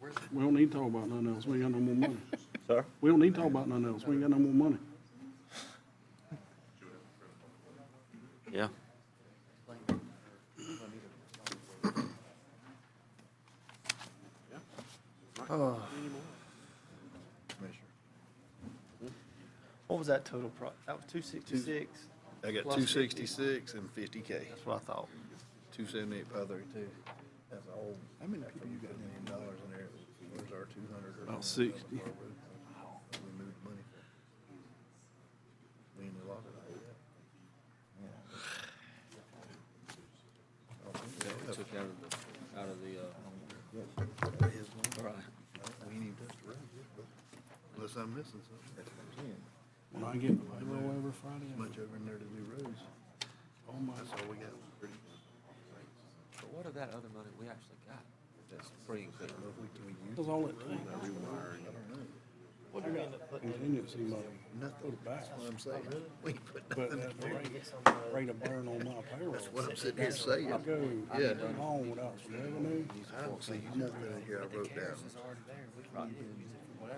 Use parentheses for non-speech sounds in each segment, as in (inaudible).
We don't need to talk about nothing else. We ain't got no more (laughs) money. Sir? We don't need to talk about nothing else. We ain't got no more money. Yeah. What was that total pro, that was two sixty-six? I got Plus two sixty-six and fifty K, That's what I thought. two seventy-eight, five thirty-two. That's a whole. How many people you got? Million dollars in there, where's our two hundred? About 60. We moved money. We in the locker. Took out of the, out of the, uh, all right. We need this to run, unless I'm missing something. When I get below every Friday, I'm Much over in there to do roads. Oh my. That's all we got. But what of that other money we actually got? That's free and clear. That's all it takes. What did we end up putting in? Contingency money. Put Nothing, it that's back. what I'm saying. We ain't put But nothing that in there. rate, uh, rate of burn on my payroll. That's what I'm sitting here saying. I go Yeah. too long without some revenue. I don't see you nothing in here I wrote down.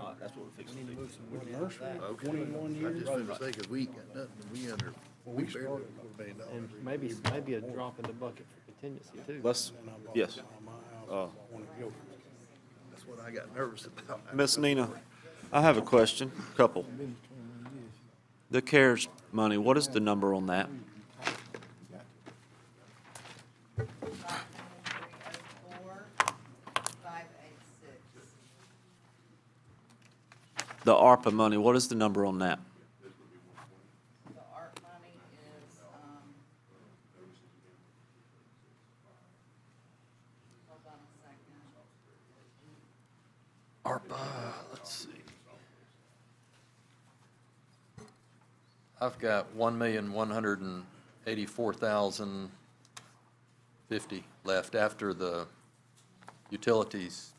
Uh, that's what we fixed to do. With nursery, Okay. twenty-one I years. just wanted to say, cause we ain't got nothing, we under, we we barely over started- a million dollars. And maybe, maybe a drop in the bucket for contingency too. Let's, And I bought yes. my house Uh, on a gilt. That's what I got nervous about. Miss Nina, I have a question, couple. The CARES money, what is the number on that? five eight six. The ARPA money, what is the number on that? The art money is, um, hold on a second. ARPA, let's see. I've got one million, one hundred and eighty-four thousand fifty left after the utilities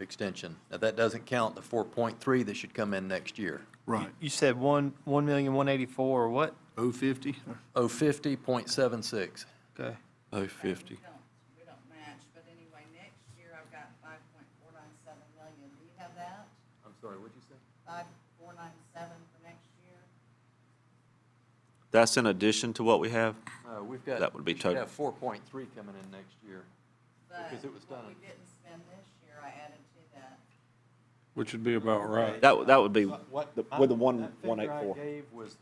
extension. Now, that doesn't count the four point three that should come in next year. Right. You said one, one million, one eighty-four, or what? Oh fifty? Oh, fifty point seven six. Okay. Oh, We fifty. don't, we don't match, but anyway, next year I've got five point four nine seven million. Do you have that? I'm sorry, what'd you say? Five, four nine seven for next year? That's in addition to what we have? No, Uh, we've got. That would be we should total. have four point three coming in next year. But Because it was what done. we didn't spend this year, I added to that. Which would be about right. That, that would be What- what- the- with the I'm- one, that figure one eight four. I gave was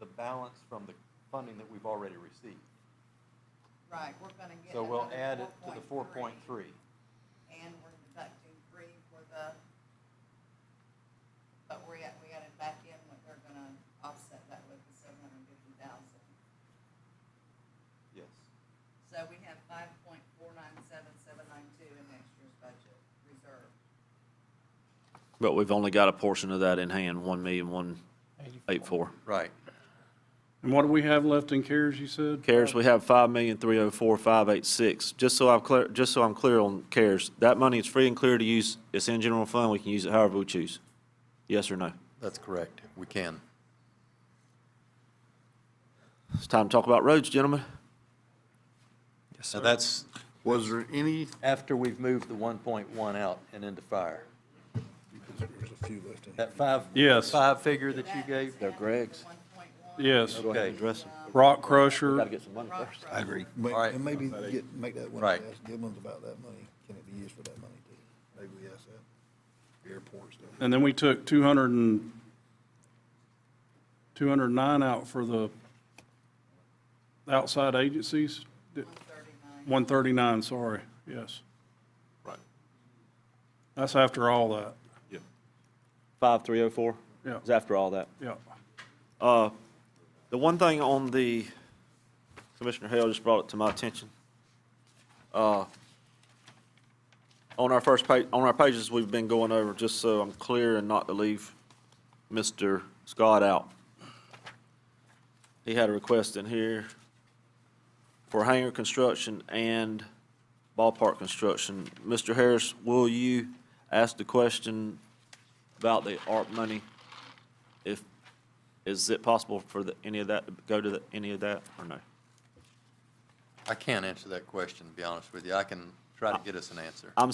the balance from the funding that we've already received. Right, we're gonna get So we'll another add it to the four point 4.3, three. And we're deducting three for the, but we're, at- we added back in what they're gonna offset that with the seven hundred and fifty thousand. Yes. So we have five point four nine seven seven nine two in next year's budget reserve. But we've only got a portion of that in hand, one million, one eight four. Right. And what do we have left in CARES, you said? CARES, we have five million, three oh four, five eight six. Just so I'm clear, just so I'm clear on CARES, that money is free and clear to use. It's in general fund. We can use it however we choose. Yes or no? That's correct. We can. It's time to talk about roads, gentlemen. Now, that's Was there any? after we've moved the one point one out and into fire. There's a few left in here. That five. Yes. Five figure that you gave. They're Greg's. One point one. Yes, Go ahead and Okay. address them. rock crusher. Gotta get some money Rock first. Road. Ma- All right. And maybe get, make that one, Right. ask Gibbons about that money, can it be used for that money too? Maybe we ask that. Airport stuff. And then we took two hundred and, two hundred and nine out for the outside agencies. One thirty-nine. One thirty-nine, sorry, yes. Right. That's after all that, Five three oh four? Yeah. It's after all that. yeah. Uh, The one thing on the, Commissioner Hale just brought it to my attention. Uh, On our first page, on our pages, we've been going over, just so I'm clear and not to leave Mr. Scott out. He had a request in here for hangar construction and ballpark construction. Mr. Harris, will you ask the question about the ARP money? If is it possible for the, any of that, to go to the, any of that, or no? I can't answer that question, to be honest with you. I can try to get us an answer. I'm